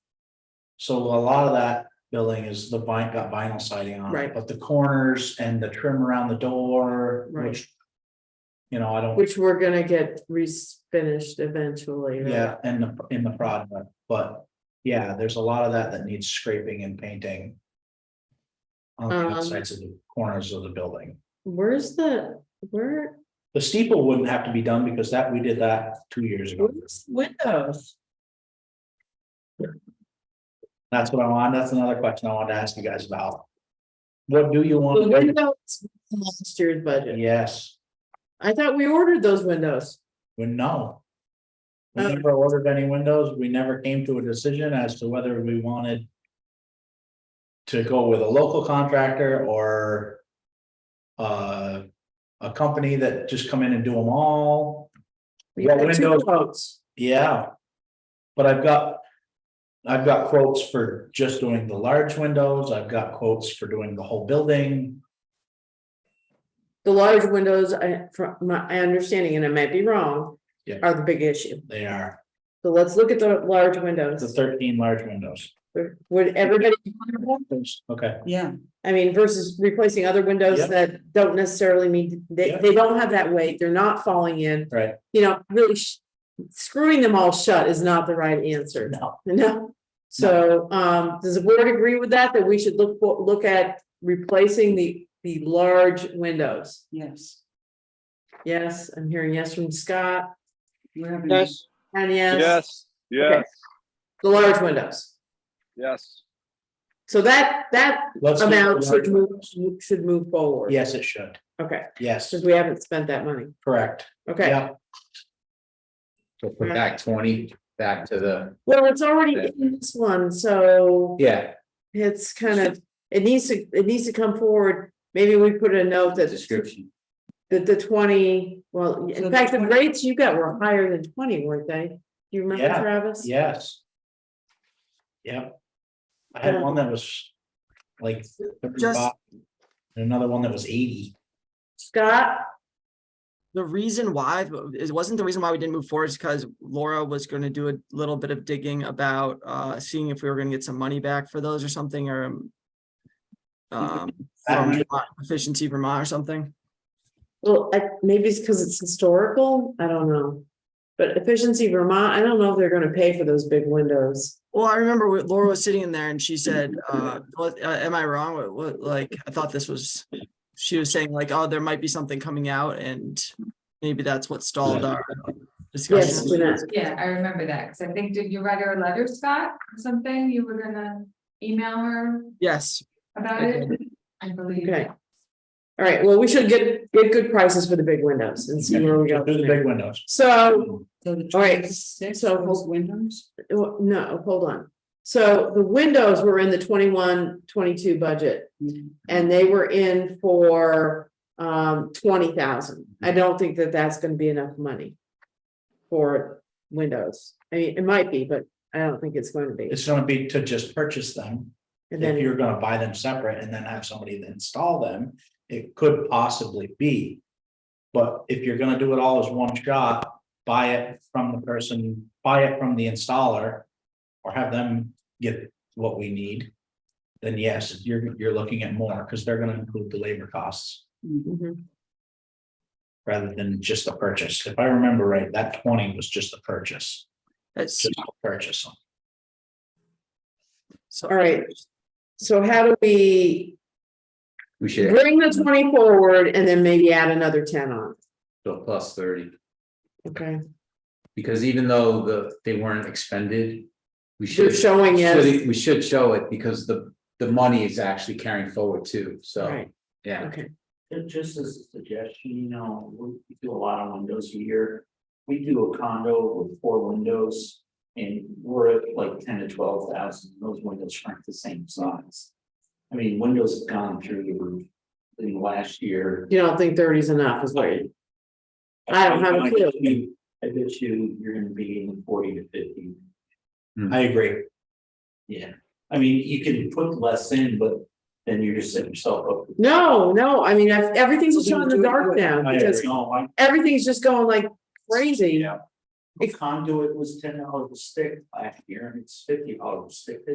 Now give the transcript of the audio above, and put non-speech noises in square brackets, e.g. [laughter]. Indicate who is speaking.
Speaker 1: So a lot of that building is the vinyl, got vinyl siding on it,
Speaker 2: Right.
Speaker 1: but the corners and the trim around the door,
Speaker 2: Right.
Speaker 1: which. You know, I don't,
Speaker 2: which we're gonna get refinished eventually. right?
Speaker 1: yeah, in the, in the product, but yeah, there's a lot of that that needs scraping and painting. On the
Speaker 2: Um,
Speaker 1: outsides of the corners of the building.
Speaker 2: Where's the, where,
Speaker 1: The steeple wouldn't have to be done because that, we did that two years ago.
Speaker 2: where's windows?
Speaker 1: That's what I want, that's another question I wanted to ask you guys about. What do you
Speaker 2: The
Speaker 1: want?
Speaker 2: windows, in last year's budget.
Speaker 1: Yes,
Speaker 2: I thought we ordered those windows.
Speaker 1: we know. We
Speaker 2: Oh.
Speaker 1: never ordered any windows, we never came to a decision as to whether we wanted. To go with a local contractor or. Uh, a company that just come in and do them all.
Speaker 2: We
Speaker 1: Well,
Speaker 2: had two
Speaker 1: windows-
Speaker 2: quotes.
Speaker 1: Yeah. But I've got. I've got quotes for just doing the large windows, I've got quotes for doing the whole building,
Speaker 2: The large windows, I, from my my understanding, and I might be wrong,
Speaker 1: Yeah.
Speaker 2: are the big issue.
Speaker 1: they are
Speaker 2: So let's look at the large
Speaker 1: the
Speaker 2: windows.
Speaker 1: thirteen large windows.
Speaker 2: Would everybody,
Speaker 1: Okay,
Speaker 3: Yeah,
Speaker 2: I mean, versus replacing other windows
Speaker 1: Yeah.
Speaker 2: that don't necessarily mean, they,
Speaker 1: Yeah.
Speaker 2: they don't have that weight, they're not falling in.
Speaker 1: right,
Speaker 2: you know, really sh- screwing them all shut is not the right answer,
Speaker 1: now,
Speaker 2: no. So, um, does the board agree with that, that we should look, for- look at replacing the, the large windows?
Speaker 3: yes.
Speaker 2: Yes, I'm hearing yes from Scott,
Speaker 3: We're having-
Speaker 2: Yes. and yes,
Speaker 4: Yes, yes,
Speaker 2: the large windows.
Speaker 4: yes.
Speaker 2: So that, that
Speaker 1: let's. do the
Speaker 2: amount
Speaker 1: large
Speaker 2: should move,
Speaker 1: windows.
Speaker 2: should move forward.
Speaker 1: Yes, it should,
Speaker 2: Okay,
Speaker 1: yes,
Speaker 2: because we haven't spent that money,
Speaker 1: correct,
Speaker 2: okay.
Speaker 1: yeah,
Speaker 5: So put back twenty, back to the,
Speaker 2: Well, it's already in this one, so.
Speaker 5: yeah,
Speaker 2: It's kind of, it needs to, it needs to come forward, maybe we put a note
Speaker 5: the
Speaker 2: that
Speaker 5: description.
Speaker 2: that the twenty, well,
Speaker 3: So
Speaker 2: in
Speaker 3: the
Speaker 2: fact, the
Speaker 3: 20
Speaker 2: rates you got were higher than twenty, weren't they? Do you remember
Speaker 1: Yeah,
Speaker 2: Travis?
Speaker 1: yes. Yep. I had one that was like thirty-five. and Another one that was eighty,
Speaker 2: Scott,
Speaker 6: The reason why, it wasn't the reason why we didn't move forward is because Laura was gonna do a little bit of digging about, uh, seeing if we were gonna get some money back for those or something, or um, um,
Speaker 2: [laughs]
Speaker 6: from
Speaker 1: Actually-
Speaker 6: Vermont- efficiency Vermont or something.
Speaker 2: well, I, maybe it's because it's historical, I don't know. But efficiency Vermont, I don't know if they're gonna pay for those big windows.
Speaker 6: Well, I remember what Laura was sitting in there and she said, uh, what- uh, am I wrong? What, what, like, I thought this was, she was saying like, oh, there might be something coming out and maybe that's what stalled our
Speaker 2: Yes,
Speaker 6: discussion.
Speaker 2: Jeanette,
Speaker 7: Yeah, I remember that, because I think, did you write her a letter, Scott, or something? You were gonna email her
Speaker 6: Yes,
Speaker 7: about it? I believe.
Speaker 2: okay. All right, well, we should get, get good prices for the big windows and see where we go.
Speaker 1: through the big windows.
Speaker 2: So
Speaker 3: So the
Speaker 2: All right,
Speaker 3: 26
Speaker 2: so-
Speaker 3: those windows?
Speaker 2: Well, no, hold on. So the windows were in the 21, 22 budget
Speaker 3: Mhm.
Speaker 2: and they were in for um twenty thousand. I don't think that that's gonna be enough money for windows. I mean, it might be, but I don't think it's going to be.
Speaker 1: It's gonna be to just purchase them,
Speaker 2: And
Speaker 1: if
Speaker 2: then,
Speaker 1: you're gonna buy them separate and then have somebody to install them, it could possibly be. But if you're gonna do it all as one shot, buy it from the person, buy it from the installer. Or have them get what we need. Then yes, you're, you're looking at more, because they're gonna include the labor costs
Speaker 2: Mhm.
Speaker 1: rather than just the purchase. If I remember right, that twenty was just the purchase,
Speaker 6: that's,
Speaker 1: just the purchase.
Speaker 6: so.
Speaker 2: all right. So how do we
Speaker 5: We should
Speaker 2: bring the twenty forward and then maybe add another ten on?
Speaker 5: go plus thirty,
Speaker 2: Okay,
Speaker 5: because even though the, they weren't expended, we
Speaker 2: they're
Speaker 5: should.
Speaker 2: showing it,
Speaker 5: should- We should show it because the, the money is actually carrying forward too, so,
Speaker 2: right,
Speaker 5: yeah.
Speaker 2: okay.
Speaker 8: And just as a suggestion, you know, we do a lot of windows a year. We do a condo with four windows and we're at like ten to twelve thousand. Those windows aren't the same size. I mean, windows have gone through the roof in the last year.
Speaker 2: You don't think thirty is enough is what you I don't have a clue.
Speaker 8: I bet you, you're gonna be in the forty to fifty.
Speaker 1: I agree.
Speaker 8: Yeah, I mean, you can put less in, but then you're just setting yourself up. for-
Speaker 2: No, no, I mean, I've- everything's showing the dark now,
Speaker 1: I
Speaker 2: because
Speaker 1: agree.
Speaker 8: No, I-
Speaker 2: everything's just going like crazy.
Speaker 8: A conduit was ten dollars a stick last year and it's fifty dollars a stick this